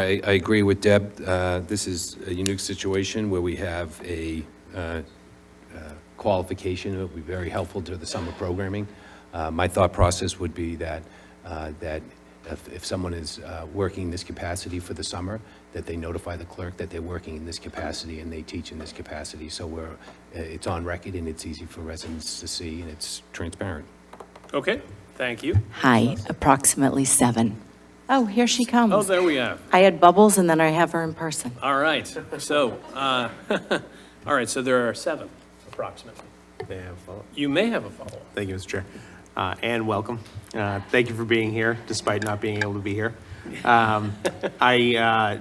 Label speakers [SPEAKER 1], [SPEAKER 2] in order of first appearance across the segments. [SPEAKER 1] I, I agree with Deb. Uh, This is a unique situation where we have a uh, uh, qualification that would be very helpful to the summer programming. Uh, My thought process would be that, uh, that if, if someone is uh, working in this capacity for the summer, that they notify the clerk that they're working in this capacity and they teach in this capacity. So we're, uh, it's on record and it's easy for residents to see and it's transparent.
[SPEAKER 2] Okay, thank you.
[SPEAKER 3] Hi, approximately seven. Oh, here she
[SPEAKER 2] Oh,
[SPEAKER 3] comes.
[SPEAKER 2] there we are.
[SPEAKER 3] I had bubbles and then I have her in person.
[SPEAKER 2] All right, so, uh, all right, so there are seven approximately.
[SPEAKER 4] May I have a follow-up?
[SPEAKER 2] You may have a follow-up.
[SPEAKER 4] Thank you, Mr. Chair. Uh, And welcome. Uh, Thank you for being here despite not being able to be here. Um, I, uh,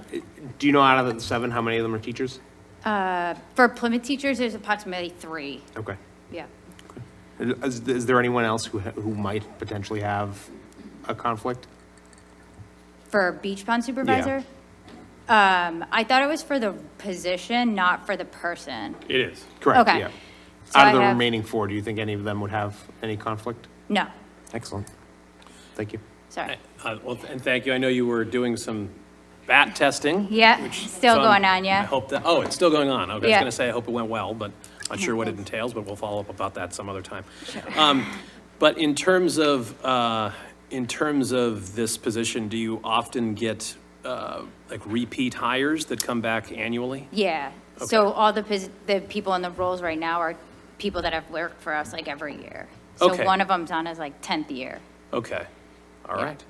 [SPEAKER 4] do you know out of the seven, how many of them are teachers?
[SPEAKER 5] For Plymouth teachers, there's approximately three,
[SPEAKER 4] Okay. uh,
[SPEAKER 5] yeah.
[SPEAKER 4] Is is there anyone else who ha- who might potentially have a conflict?
[SPEAKER 5] For beach pond supervisor? Um, I thought it was for the position, not for the person.
[SPEAKER 2] It is.
[SPEAKER 4] Correct,
[SPEAKER 5] Okay.
[SPEAKER 4] yeah.
[SPEAKER 5] So
[SPEAKER 4] Out
[SPEAKER 5] I
[SPEAKER 4] of the
[SPEAKER 5] have-
[SPEAKER 4] remaining four, do you think any of them would have any conflict?
[SPEAKER 5] No,
[SPEAKER 4] Excellent. Thank you.
[SPEAKER 5] sorry.
[SPEAKER 2] Uh, Well, and thank you, I know you were doing some bat testing.
[SPEAKER 5] Yeah,
[SPEAKER 2] which-
[SPEAKER 5] still
[SPEAKER 2] so I'm-
[SPEAKER 5] going on,
[SPEAKER 2] I
[SPEAKER 5] yeah.
[SPEAKER 2] hope that, oh, it's still going on. Okay, I was
[SPEAKER 5] Yeah.
[SPEAKER 2] going to say, I hope it went well, but not sure what it entails, but we'll follow up about that some other time. Um, But in terms of, uh, in terms of this position, do you often get uh, like repeat hires that come back annually?
[SPEAKER 5] Yeah, so all the, pos- the people in the roles right now are people that have worked for us like every year. So
[SPEAKER 2] Okay.
[SPEAKER 5] one of them's on his like 10th year.
[SPEAKER 2] Okay, all right.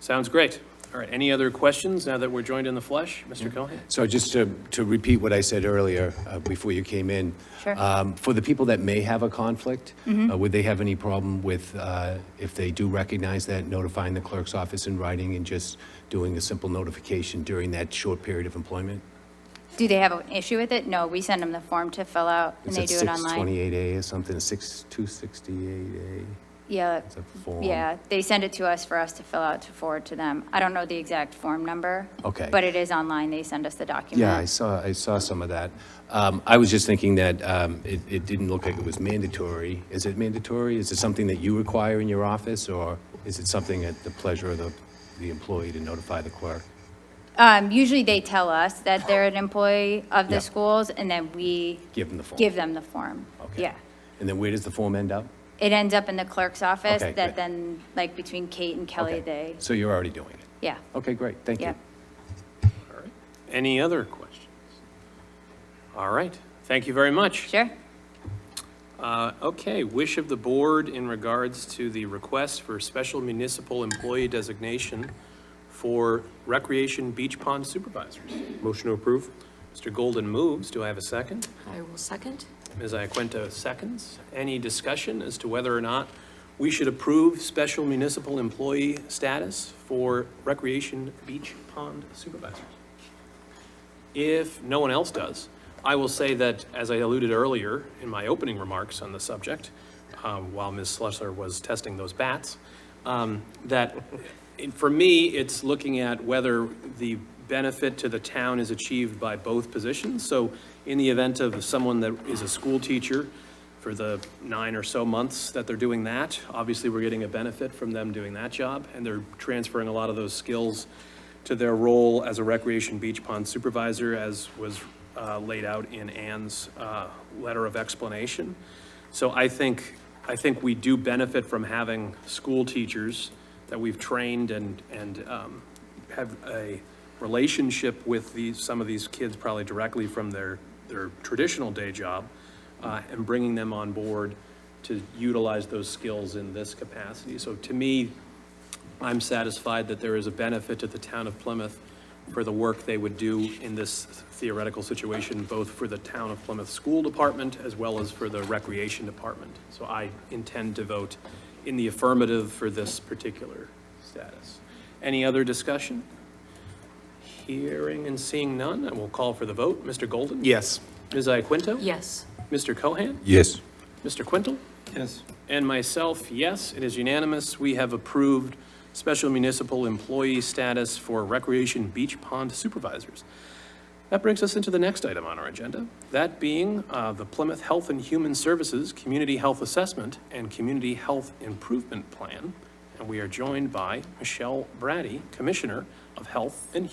[SPEAKER 2] Sounds great. All right, any other questions now that we're joined in the flesh? Mr. Cohen?
[SPEAKER 1] So just to, to repeat what I said earlier, uh, before you came in.
[SPEAKER 5] Sure. Mm-hmm.
[SPEAKER 1] um, For the people that may have a conflict, uh, would they have any problem with, uh, if they do recognize that, notifying the clerk's office in writing and just doing a simple notification during that short period of employment?
[SPEAKER 5] Do they have an issue with it? No, we send them the form to fill out and they do it online.
[SPEAKER 1] It's at 628A or something, 6268A,
[SPEAKER 5] Yeah,
[SPEAKER 1] it's a form.
[SPEAKER 5] Yeah, they send it to us for us to fill out to forward to them. I don't know the exact form number.
[SPEAKER 1] Okay.
[SPEAKER 5] But it is online, they send us the document.
[SPEAKER 1] Yeah, I saw, I saw some of that. Um, I was just thinking that um, it, it didn't look like it was mandatory. Is it mandatory? Is it something that you require in your office, or is it something at the pleasure of the, the employee to notify the clerk?
[SPEAKER 5] Um, usually they tell us that they're an employee of
[SPEAKER 1] Yeah.
[SPEAKER 5] the schools, and then we.
[SPEAKER 1] Give them the form.
[SPEAKER 5] Give them the form.
[SPEAKER 1] Okay.
[SPEAKER 5] Yeah.
[SPEAKER 1] And then where does the form end up?
[SPEAKER 5] It ends up in the clerk's office,
[SPEAKER 1] Okay, good.
[SPEAKER 5] that then, like, between Kate and Kelly,
[SPEAKER 1] Okay.
[SPEAKER 5] they,
[SPEAKER 1] So you're already doing it?
[SPEAKER 5] yeah,
[SPEAKER 1] Okay, great, thank
[SPEAKER 5] yeah.
[SPEAKER 1] you.
[SPEAKER 2] Any other questions? All right, thank you very much.
[SPEAKER 5] Sure.
[SPEAKER 2] Uh, Okay, wish of the board in regards to the request for special municipal employee designation for recreation beach pond supervisors.
[SPEAKER 4] Motion to approve?
[SPEAKER 2] Mr. Golden moves, do I have a second?
[SPEAKER 6] I will second.
[SPEAKER 2] Ms. Iaquinta seconds. Any discussion as to whether or not we should approve special municipal employee status for recreation beach pond supervisors? If no one else does, I will say that, as I alluded earlier in my opening remarks on the subject, um, while Ms. Slusser was testing those bats, um, that it- for me, it's looking at whether the benefit to the town is achieved by both positions. So in the event of someone that is a school teacher for the nine or so months that they're doing that, obviously, we're getting a benefit from them doing that job, and they're transferring a lot of those skills to their role as a recreation beach pond supervisor, as was uh, laid out in Ann's uh, letter of explanation. So I think, I think we do benefit from having school teachers that we've trained and, and um, have a relationship with these, some of these kids probably directly from their, their traditional day job, uh, and bringing them on board to utilize those skills in this capacity. So to me, I'm satisfied that there is a benefit to the town of Plymouth for the work they would do in this theoretical situation, both for the town of Plymouth School Department as well as for the Recreation Department. So I intend to vote in the affirmative for this particular status. Any other discussion? Hearing and seeing none, I will call for the vote. Mr. Golden?
[SPEAKER 4] Yes.
[SPEAKER 2] Ms. Iaquinto?
[SPEAKER 6] Yes.
[SPEAKER 2] Mr. Cohan?
[SPEAKER 1] Yes.
[SPEAKER 2] Mr. Quintel? Yes. And myself, yes, it is unanimous. We have approved special municipal employee status for recreation beach pond supervisors. That brings us into the next item on our agenda, that being uh, the Plymouth Health and Human Services Community Health Assessment and Community Health Improvement Plan. And we are joined by Michelle Brady, Commissioner of Health and